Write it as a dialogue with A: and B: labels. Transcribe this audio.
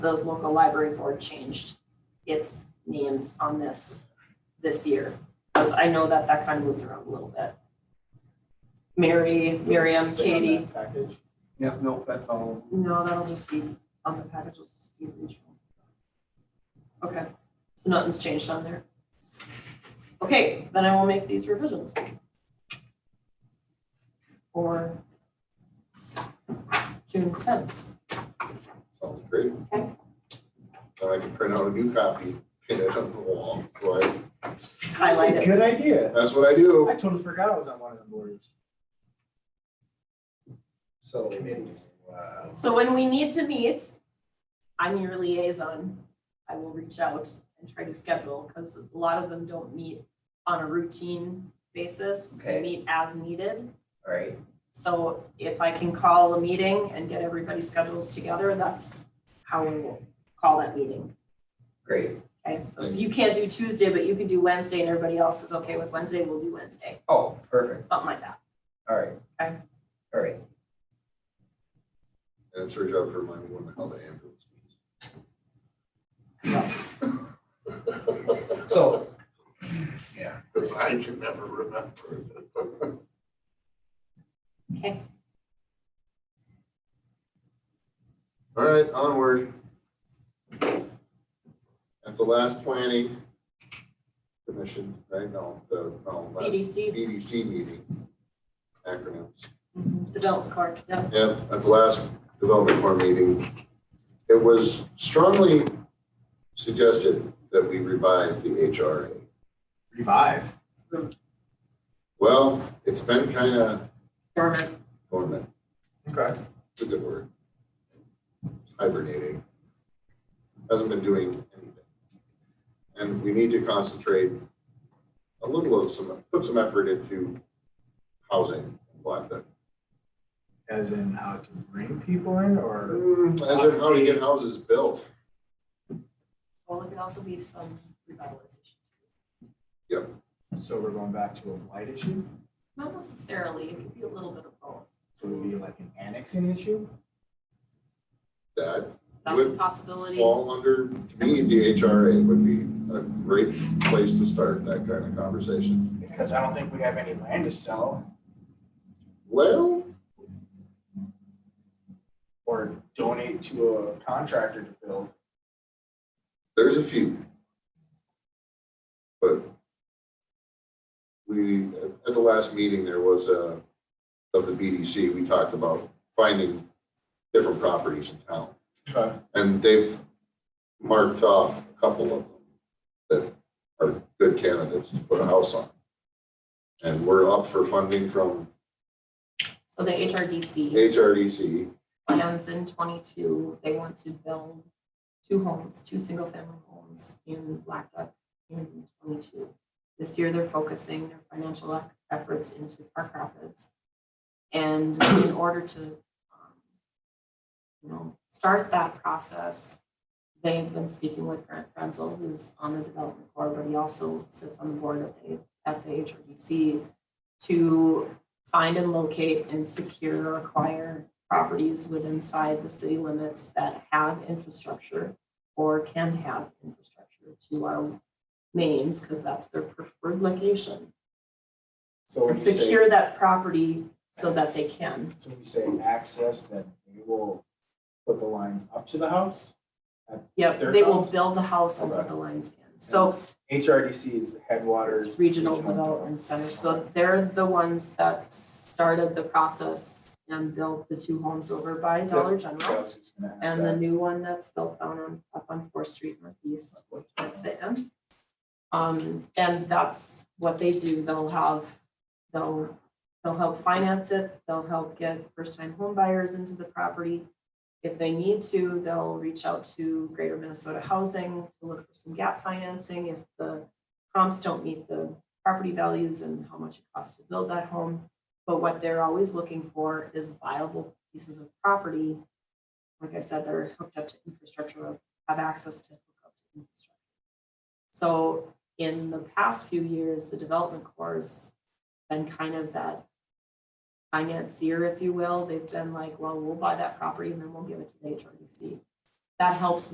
A: the local library board changed its names on this, this year. Because I know that that kind of moved around a little bit. Mary, Miriam, Katie,
B: Package.
C: Yep, nope, that's all.
A: no, that'll just be on the package, it'll just be regional. Okay, so nothing's changed on there. Okay, then I will make these revisions. For June tenth.
D: Sounds great.
A: Okay.
D: Now I can print out a new copy, pin it on the wall, so I,
A: highlight
B: That's a
A: it.
B: Good idea.
D: that's what I do.
B: I totally forgot I was on one of the boards.
E: So. Committees. Wow.
A: So when we need to meet, I'm your liaison. I will reach out and try to schedule because a lot of them don't meet on a routine basis. They
E: Okay.
A: meet as needed.
E: All right,
A: So if I can call a meeting and get everybody's schedules together, that's how we will call that meeting.
E: great.
A: Okay, so if you can't do Tuesday, but you can do Wednesday and everybody else is okay with Wednesday, we'll do Wednesday,
E: Oh, perfect.
A: something like that.
E: All right.
A: Okay.
E: All right.
D: And it's your job to remind me when the hell the ambulance means.
E: So
D: Because I can never remember.
A: Okay.
D: All right, onward. At the last planning commission, right, no, the, no, last
A: BDC,
D: BDC meeting, acronyms.
A: development card, yeah.
D: Yeah, at the last development board meeting, it was strongly suggested that we revive the HRA.
B: Revive.
D: Well, it's been kind of
A: Dormant.
D: dormant,
B: Okay.
D: it's a good word. Hibernating. Hasn't been doing anything. And we need to concentrate a little of some, put some effort into housing in Black Duck.
B: As in how to bring people in or?
D: mm, As in how to get houses built.
A: Well, it could also be some revitalization.
B: So we're going back to a blight issue?
A: Not necessarily, it could be a little bit of both.
B: So it would be like an annexing issue?
D: That
A: That's a
D: Would
A: possibility.
D: fall under, to me, the HRA would be a great place to start that kind of conversation.
B: Because I don't think we have any land to sell
D: Well,
B: or donate to a contractor to build.
D: there's a few. But we, at the last meeting, there was a, of the BDC, we talked about finding different properties in town.
B: Okay.
D: And they've marked off a couple of them that are good candidates to put a house on. And we're up for funding from
A: So the HRDC
D: HRDC,
A: plans in twenty-two, they want to build two homes, two single-family homes in Black Duck in twenty-two. This year, they're focusing their financial ec- efforts into Park Rapids. And in order to, um, you know, start that process, they've been speaking with Grant Frenzel, who's on the development board, but he also sits on the board at the, at the HRDC to find and locate and secure, acquire properties within inside the city limits that have infrastructure or can have infrastructure to our mains, because that's their preferred location.
B: So when
A: And
B: you say-
A: secure that property so that they can.
B: So when you say access, then they will put the lines up to the house?
A: Yep, they will build the house and put the lines in. So
B: HRDC is headwaters.
A: it's Regional Development Center, so they're the ones that started the process and built the two homes over by Dollar
B: I
A: General.
B: was just gonna ask
A: And the
B: that.
A: new one that's built down on, up on Fourth Street Northeast. that's the end. Um, and that's what they do, they'll have, they'll, they'll help finance it, they'll help get first-time home buyers into the property. If they need to, they'll reach out to Greater Minnesota Housing to look for some gap financing if the comps don't meet the property values and how much it costs to build that home. But what they're always looking for is viable pieces of property. Like I said, they're hooked up to infrastructure, have access to hook up to infrastructure. So in the past few years, the development core's been kind of that financier, if you will. They've been like, well, we'll buy that property and then we'll give it to the HRDC. That helps